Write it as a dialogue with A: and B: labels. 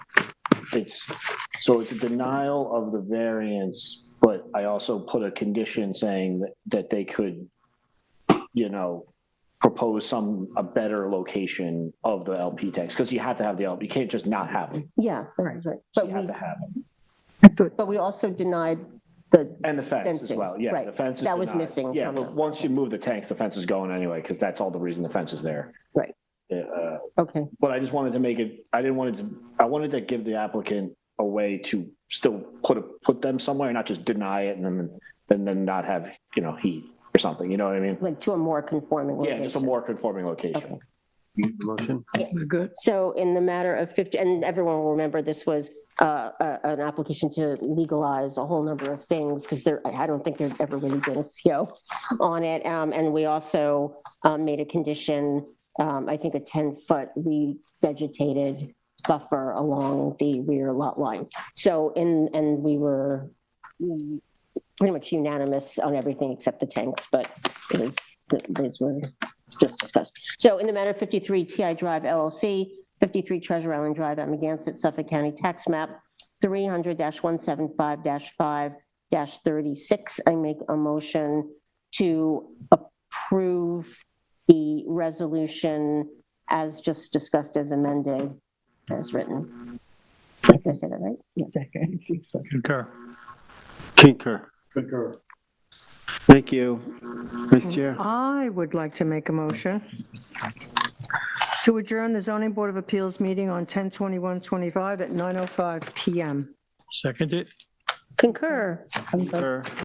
A: it's, so it's a denial of the variance, but I also put a condition saying that, that they could, you know, propose some, a better location of the LP tanks, because you have to have the LP, you can't just not have them.
B: Yeah,
C: Right.
B: that's right.
A: So
B: But
A: you have
B: we,
A: to have them.
C: I thought,
B: but we also denied the,
A: And the fence as
B: Fencing,
A: well, yeah,
B: right.
A: the fence is
B: That was
A: denied.
B: missing
A: Yeah,
B: from
A: but
B: the-
A: once you move the tanks, the fence is going anyway, because that's all the reason the fence is there.
B: Right.
A: Yeah, Uh,
B: okay,
A: But I just wanted to make it, I didn't want it to, I wanted to give the applicant a way to still put, a- put them somewhere and not just deny it and then, and then not have, you know, heat or something, you know what I mean?
B: like to a more conforming
A: Yeah, just a
B: location.
A: more conforming location.
B: Okay.
D: Motion?
B: Yes.
C: it's good.
B: So in the matter of 50, and everyone will remember this was uh, a- an application to legalize a whole number of things because there, I I don't think there's ever really been a CO on it. Um, And we also um, made a condition, um, I think a 10-foot revegetated buffer along the rear lot line. So in, and we were mm, pretty much unanimous on everything except the tanks, but it was, th- these were just discussed. So in the matter of 53 TI Drive LLC, 53 Treasure Island Drive, Amagansett, Suffolk County Tax Map, 300-175-5-36, I make a motion to approve the resolution as just discussed as amended, as written. Did I say that right? Yes.
C: Second, I think so.
D: Concur.
E: Concur.
A: Concur.
E: Thank you, Vice Chair.
C: I would like to make a motion to adjourn the zoning board of appeals meeting on 10/21/25 at 9:05 PM.
D: Seconded.
B: Concur.
E: Concur.